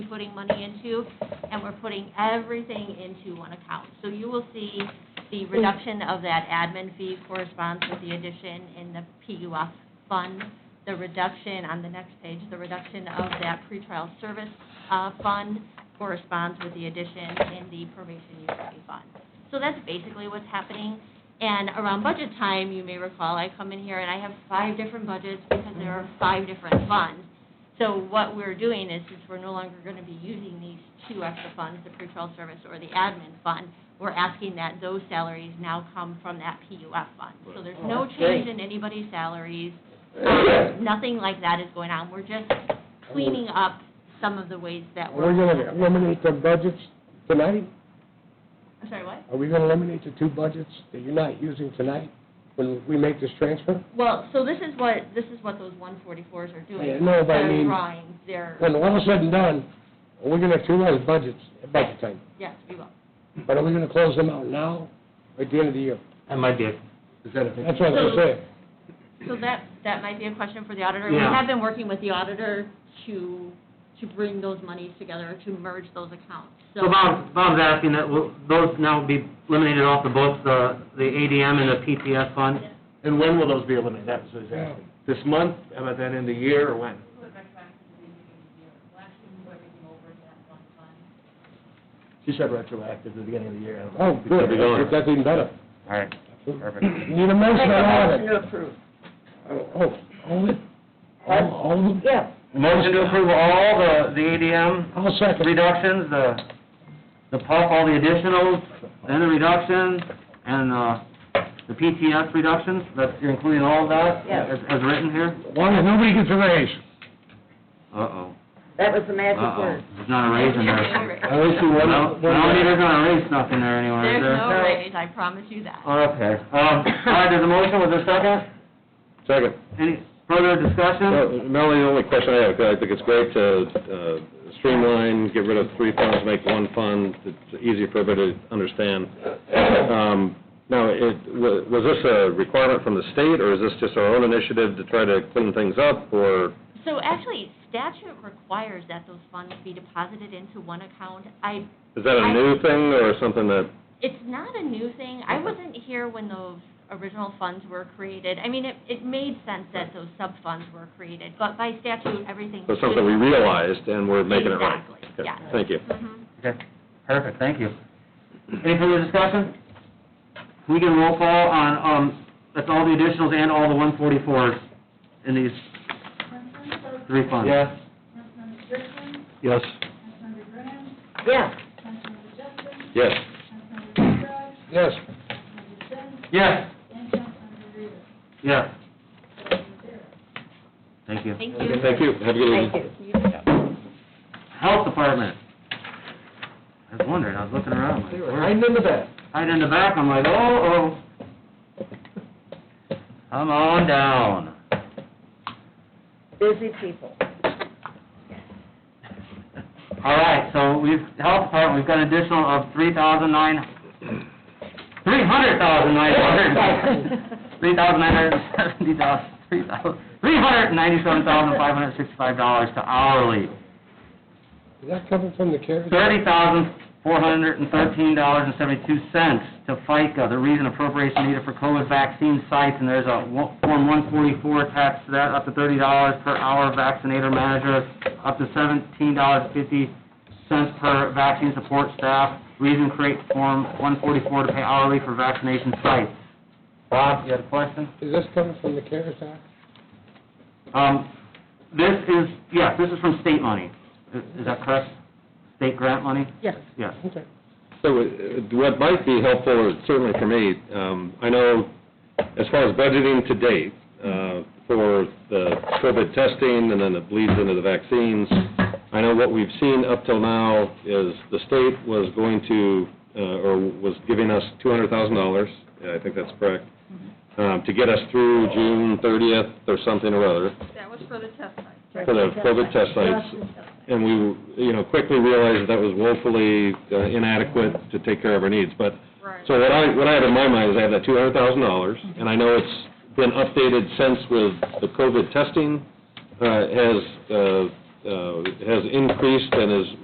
putting money into, and we're putting everything into one account. So you will see the reduction of that admin fee corresponds with the addition in the PUF fund, the reduction, on the next page, the reduction of that pretrial service uh, fund corresponds with the addition in the probation utility fund. So that's basically what's happening. And around budget time, you may recall, I come in here and I have five different budgets because there are five different funds. So what we're doing is, is we're no longer going to be using these two extra funds, the pretrial service or the admin fund. We're asking that those salaries now come from that PUF fund. So there's no change in anybody's salaries, um, nothing like that is going on. We're just cleaning up some of the ways that we're. We're gonna eliminate the budgets tonight? I'm sorry, what? Are we gonna eliminate the two budgets that you're not using tonight when we make this transfer? Well, so this is what, this is what those 144s are doing. Yeah, no, but I They're mean- drawing, they're, When all said and done, we're gonna have two lines budgets at budget time, yes, we will. but are we gonna close them out now or at the end of the year? That might be, That's what I'm saying. So that, that might be a question for the auditor. We Yeah. have been working with the auditor to, to bring those monies together, to merge those accounts, so. so Bob, Bob's asking that will- those now be eliminated off of both the, the ADM and the PTS fund? And when will those be eliminated? That was his asking. This month, about that end of the year, or when? She said retroactive to the beginning of the year. I don't know. Oh, good, Keep it going. that's even better. All right, perfect. Need a motion on all of it? approve. Oh, all of it? All, all of them? Yeah. Motion to approve all the, the ADM I'll second. reductions, the, the PUF, all the additionals, and the reductions, and, uh, the PTS reductions, that's, you're including all of that? Yes. As, as written here? As long as nobody gets a raise. Uh-oh, That was the magic uh-oh, word. there's not a raise in there. There's I only see one- No, one- no, neither's gonna raise nothing there anywhere, is there? no raise, I promise you that. Okay, um, all right, there's a motion, was there a second? Second. Any further Well, discussion? Melanie, the only question I have, 'cause I think it's great to uh, streamline, get rid of three funds, make one fund, it's easier for everybody to understand. Um, Now, it, wa- was this a requirement from the state, or is this just our own initiative to try to clean things up, or? So actually, statute requires that those funds be deposited into one account. I, Is that a new thing, or something that, it's not a new thing. I wasn't here when those original funds were created. I mean, it, it made sense that those sub-funds were created, but by statute, everything. was something we should- realized, and we're making it right? Exactly, Okay, yeah. Thank you. Mhm. Okay, perfect, thank you. Any further discussion? We can roll call on, um, that's all the additionals and all the one forty-fours in these three funds. Yes? Yes. Yeah. Yes. Yes. Yes. Yes. Thank you. Thank you. Thank you. Have a good evening. Thank you. Health Department. I was wondering, I was looking around, like, where- Hiding in the back. right in the back, I'm like, oh, oh. Come on down. Busy people. All right, so we've, health department, we've got an additional of three thousand nine, three hundred thousand nine hundred, three thousand nine hundred seventy dollars, three thousand, three hundred ninety-seven thousand five hundred sixty-five dollars to hourly, Is that coming from the CARES? thirty thousand four hundred and thirteen dollars and seventy-two cents to FICA, the reason appropriation needed for COVID vaccine sites, and there's a one- Form one forty-four attached to that, up to thirty dollars per hour vaccinator manager, up to seventeen dollars fifty cents per vaccine support staff, reason create Form one forty-four to pay hourly for vaccination sites. Bob, you had a question? Is this coming from the CARES Act? Um, this is, yes, this is from state money, is is that correct? State grant money? Yes. Yes. Okay. So uh, what might be helpful, is certainly for me, um, I know as far as budgeting to date uh, for the COVID testing and then it bleeds into the vaccines, I know what we've seen up till now is the state was going to, uh, or was giving us $200,000, I think that's correct, um, to get us through June 30th or something or other for the COVID test sites. And we, you know, quickly realized that was woefully uh, inadequate to take care of our needs. But, so what I, what I have in my mind is I have that two hundred thousand dollars, and I know it's been updated since with the COVID testing, uh, has, uh, uh, has increased and is